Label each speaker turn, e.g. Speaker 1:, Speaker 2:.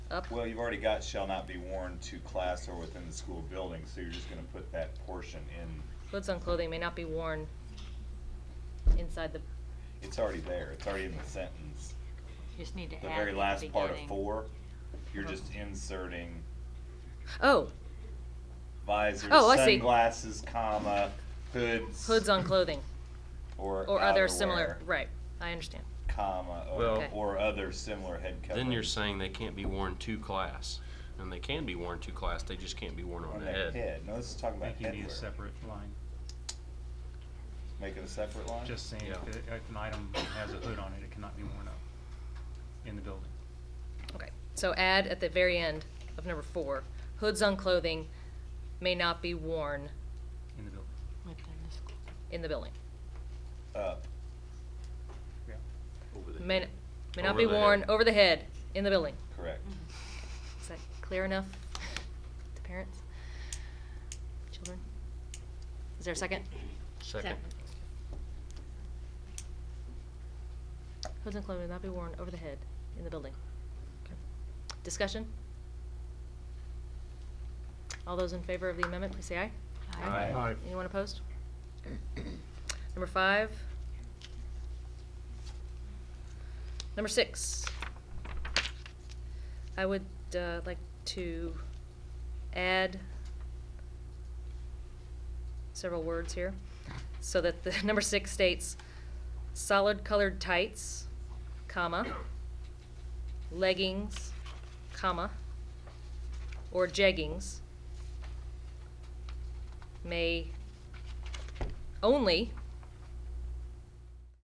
Speaker 1: up?
Speaker 2: Well, you've already got shall not be worn to class or within the school building, so you're just gonna put that portion in,
Speaker 1: Clothes on clothing may not be worn inside the,
Speaker 2: it's already there, it's already in the sentence.
Speaker 3: Just need to add
Speaker 2: The
Speaker 3: at the
Speaker 2: very last part of
Speaker 3: beginning.
Speaker 2: four, you're just inserting
Speaker 1: oh,
Speaker 2: visors,
Speaker 1: Oh, I see.
Speaker 2: sunglasses, comma, hoods.
Speaker 1: hoods on clothing
Speaker 2: Or
Speaker 1: or other similar,
Speaker 2: outerwear,
Speaker 1: right, I understand.
Speaker 2: Comma,
Speaker 4: Well-
Speaker 2: or, or other similar head covering.
Speaker 4: Then you're saying they can't be worn to class, and they can be worn to class, they just can't be worn on
Speaker 2: On
Speaker 4: the
Speaker 2: that
Speaker 4: head.
Speaker 2: head, no, this is talking
Speaker 5: I
Speaker 2: about
Speaker 5: think you need a
Speaker 2: headwear,
Speaker 5: separate line,
Speaker 2: make it a separate line?
Speaker 5: just saying
Speaker 4: Yeah.
Speaker 5: if, it- if an item has a hood on it, it cannot be worn up in the building.
Speaker 1: Okay, so add at the very end of number four, hoods on clothing may not be worn
Speaker 5: In the building.
Speaker 3: Within the school.
Speaker 1: in the building.
Speaker 2: Up,
Speaker 5: Yeah.
Speaker 4: Over the
Speaker 1: May,
Speaker 4: head.
Speaker 1: may not
Speaker 4: Over
Speaker 1: be
Speaker 4: the head.
Speaker 1: worn over the head in the building.
Speaker 2: correct.
Speaker 1: Mm-hmm.
Speaker 4: Mm-hmm.
Speaker 1: Is that clear enough to parents? Children? Is there a second?
Speaker 4: Second.
Speaker 1: Hoods and clothing may not be worn over the head in the building. Okay. Discussion? All those in favor of the amendment, please say aye.
Speaker 4: Aye. Aye.
Speaker 1: Anyone opposed? Number five. Number six. I would uh, like to add several words here, so that the, number six states, solid colored tights, comma, leggings, comma, or jeggings may only